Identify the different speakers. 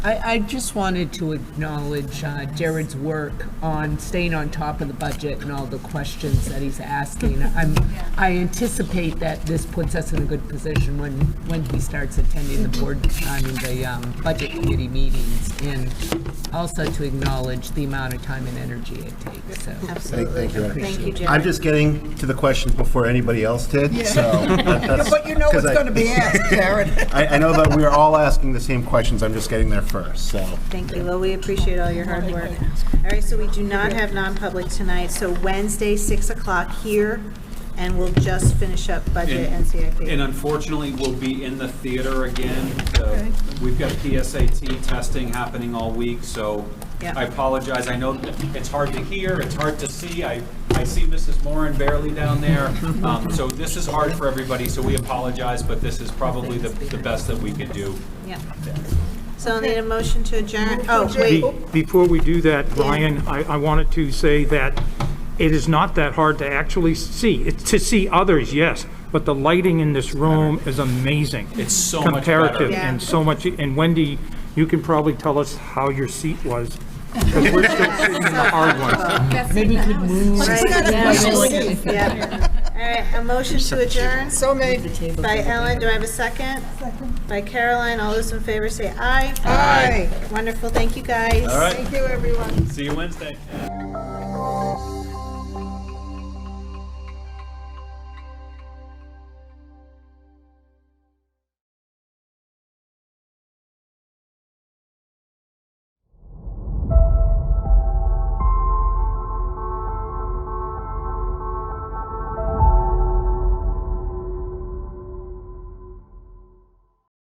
Speaker 1: I, I just wanted to acknowledge uh, Jared's work on staying on top of the budget and all the questions that he's asking. I'm, I anticipate that this puts us in a good position when, when he starts attending the board, I mean, the um, budget committee meetings, and also to acknowledge the amount of time and energy it takes, so.
Speaker 2: Thank you. Ed.
Speaker 3: Thank you, Jared.
Speaker 2: I'm just getting to the questions before anybody else did, so.
Speaker 4: But you know
Speaker 2: Because
Speaker 4: what's
Speaker 2: I-
Speaker 4: going to be asked, Jared.
Speaker 2: I, I know that we are all asking the same questions, I'm just getting there first, so.
Speaker 3: Thank you, well, we appreciate all your hard work. All right, so we do not have non-public tonight, so Wednesday, 6 o'clock here, and we'll just finish up budget and
Speaker 5: And
Speaker 3: CIP.
Speaker 5: unfortunately, we'll be in the theater again. The- We've got PSAT testing happening all week, so
Speaker 3: Yeah.
Speaker 5: I apologize. I know that it's hard to hear, it's hard to see. I, I see Mrs. Moran barely down there. Um, So this is hard for everybody, so we apologize, but this is probably the, the best that we could do.
Speaker 3: Yeah. So I'll need a motion to adjourn, oh, wait,
Speaker 6: Be- Before we do that, Ryan, I, I wanted to say that it is not that hard to actually see. It's to see others, yes, but the lighting in this room is amazing.
Speaker 5: It's so much better.
Speaker 6: Comparative
Speaker 3: Yeah.
Speaker 6: and so much, and Wendy, you can probably tell us how your seat was. Because we're still sitting in the hard ones.
Speaker 1: Maybe we could move.
Speaker 3: yeah. All right, a motion to adjourn
Speaker 4: So made.
Speaker 3: by Ellen, do I have a second? Second. By Caroline, all those in favor say aye.
Speaker 4: Aye.
Speaker 3: Wonderful, thank you, guys. All
Speaker 5: right.
Speaker 4: Thank you, everyone.
Speaker 5: See you Wednesday.